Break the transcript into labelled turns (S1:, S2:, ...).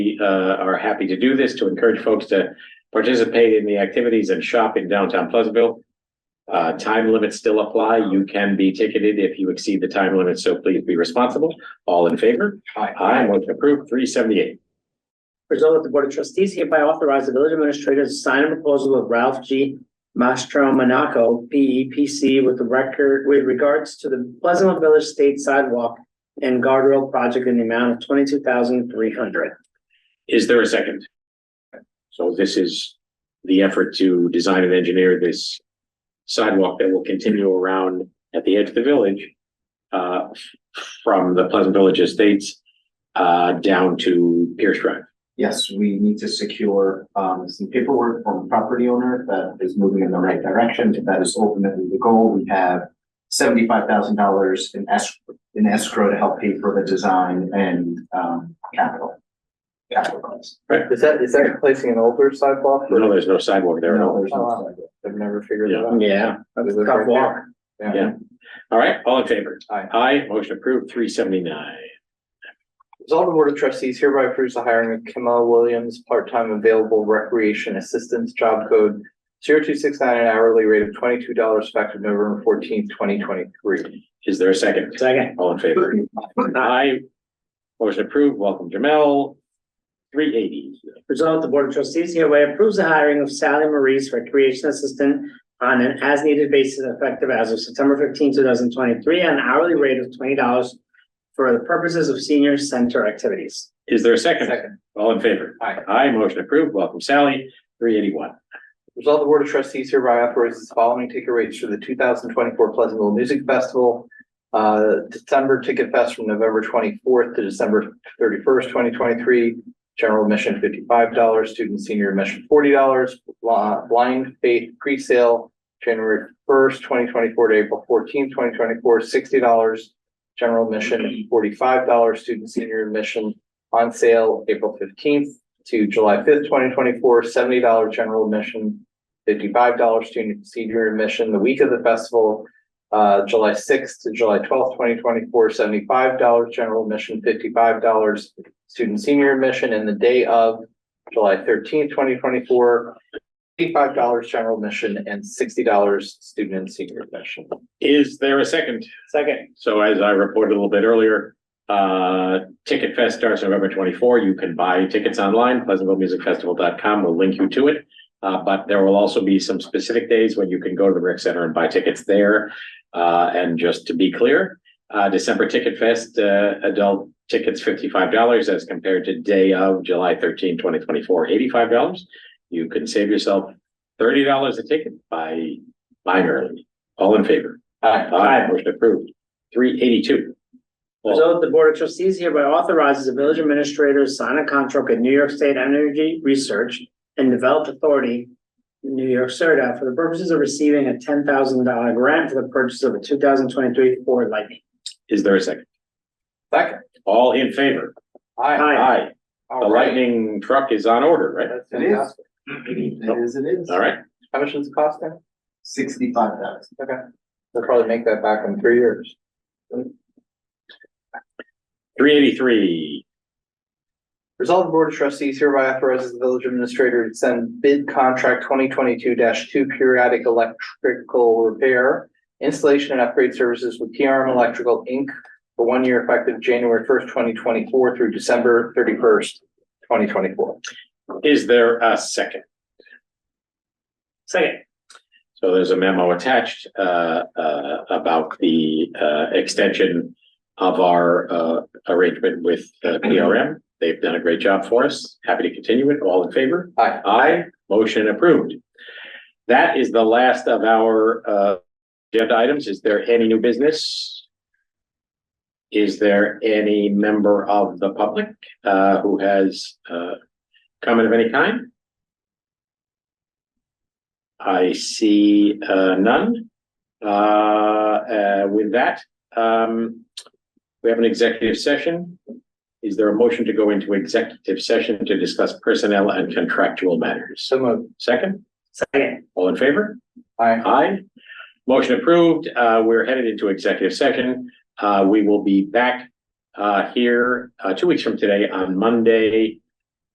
S1: We uh, are happy to do this to encourage folks to participate in the activities and shop in downtown Pleasantville. Uh, Time limits still apply. You can be ticketed if you exceed the time limit, so please be responsible. All in favor?
S2: Aye.
S1: Aye, motion approved, three seventy-eight.
S3: Resolved that the Board of Trustees hereby authorize the village administrator to sign a proposal with Ralph G. Mastro Monaco, P E P C, with the record, with regards to the Pleasantville Village State Sidewalk and Guardrail Project in the amount of twenty-two thousand three hundred.
S1: Is there a second? So this is the effort to design and engineer this sidewalk that will continue around at the edge of the village uh, from the Pleasant Village Estates uh, down to Pierce Drive.
S2: Yes, we need to secure um some paperwork from the property owner that is moving in the right direction. If that is ultimately the goal, we have seventy-five thousand dollars in escrow, in escrow to help pay for the design and um capital. Capital costs.
S4: Is that, is that replacing an older sidewalk?
S1: No, there's no sidewalk there at
S2: No,
S1: all.
S2: there's no-
S4: I've never figured that
S1: Yeah.
S4: out.
S3: Yeah.
S4: That's a
S3: Tough walk.
S1: Yeah. All right, all in favor?
S4: Aye.
S1: Aye, motion approved, three seventy-nine.
S4: Resolve the Board of Trustees hereby approves the hiring of Kamal Williams, part-time available recreation assistance, job code zero two six nine, an hourly rate of twenty-two dollars effective November fourteenth, twenty twenty-three.
S1: Is there a second?
S3: Second.
S1: All in favor? Aye. Motion approved, welcome Jamel. Three eighty.
S3: Resolved, the Board of Trustees hereby approves the hiring of Sally Maurice, Recreation Assistant, on an as-needed basis effective as of September 15, thousand twenty-three, at an hourly rate of twenty dollars for the purposes of senior center activities.
S1: Is there a second?
S4: Second,
S1: All in favor?
S4: Aye.
S1: Aye, motion approved. Welcome Sally, three eighty-one.
S4: resolve the Board of Trustees hereby authorizes the following ticket rates for the two thousand twenty-four Pleasantville Music Festival. Uh, December Ticket Fest from November twenty-fourth to December thirty-first, twenty twenty-three. General admission fifty-five dollars, student senior admission forty dollars, blind faith pre-sale. January first, twenty twenty-four to April fourteenth, twenty twenty-four, sixty dollars. General admission forty-five dollars, student senior admission on sale April fifteenth to July fifth, twenty twenty-four, seventy dollar general admission. Fifty-five dollars student senior admission, the week of the festival, uh, July sixth to July twelfth, twenty twenty-four, seventy-five dollars general admission, fifty-five dollars student senior admission, and the day of July thirteenth, twenty twenty-four, eighty-five dollars general admission and sixty dollars student and senior admission.
S1: Is there a second?
S3: Second.
S1: So as I reported a little bit earlier, uh, Ticket Fest starts November twenty-four. You can buy tickets online, pleasantvillemusicfestival.com will link you to it. Uh, but there will also be some specific days when you can go to the rec center and buy tickets there. Uh, and just to be clear, uh, December Ticket Fest, uh, adult tickets fifty-five dollars as compared to day of July 13, 2024, 85 dollars. You can save yourself thirty dollars a ticket by buying early. All in favor?
S4: Aye.
S1: Aye, motion approved. Three eighty-two.
S3: Resolved, the Board of Trustees hereby authorizes the village administrator to sign a contract with New York State Energy Research and Development Authority, New York CERDA, for the purposes of receiving a ten thousand dollar grant for the purchase of a two thousand twenty-three Ford Lightning.
S1: Is there a second?
S4: Second.
S1: All in favor?
S3: Aye.
S1: Aye. The
S4: All right.
S1: lightning truck is on order, right?
S4: That's
S2: It is.
S4: fantastic.
S2: It is, it is.
S1: All right.
S4: How much does it cost then?
S2: Sixty-five thousand.
S4: Okay. They'll probably make that back in three years.
S1: Three eighty-three.
S4: Resolve the Board of Trustees hereby authorizes the village administrator to send bid contract twenty twenty-two two periodic electrical repair, installation and upgrade services with PRM Electrical Inc. for one year effective January first, twenty twenty-four through December thirty-first, twenty twenty-four.
S1: Is there a second?
S3: Second.
S1: So there's a memo attached uh uh about the uh extension of our uh arrangement with uh, PRM. They've done a great job for us. Happy to continue it. All in favor?
S4: Aye.
S1: Aye, motion approved. That is the last of our uh agenda items. Is there any new business? Is there any member of the public uh who has uh comment of any kind? I see uh none. Uh, uh, with that, um, we have an executive session. Is there a motion to go into executive session to discuss personnel and contractual matters?
S4: So moved.
S1: Second,
S3: Second.
S1: all in favor?
S4: Aye.
S1: Aye. Motion approved. Uh, we're headed into executive session. Uh, we will be back uh, here uh, two weeks from today on Monday,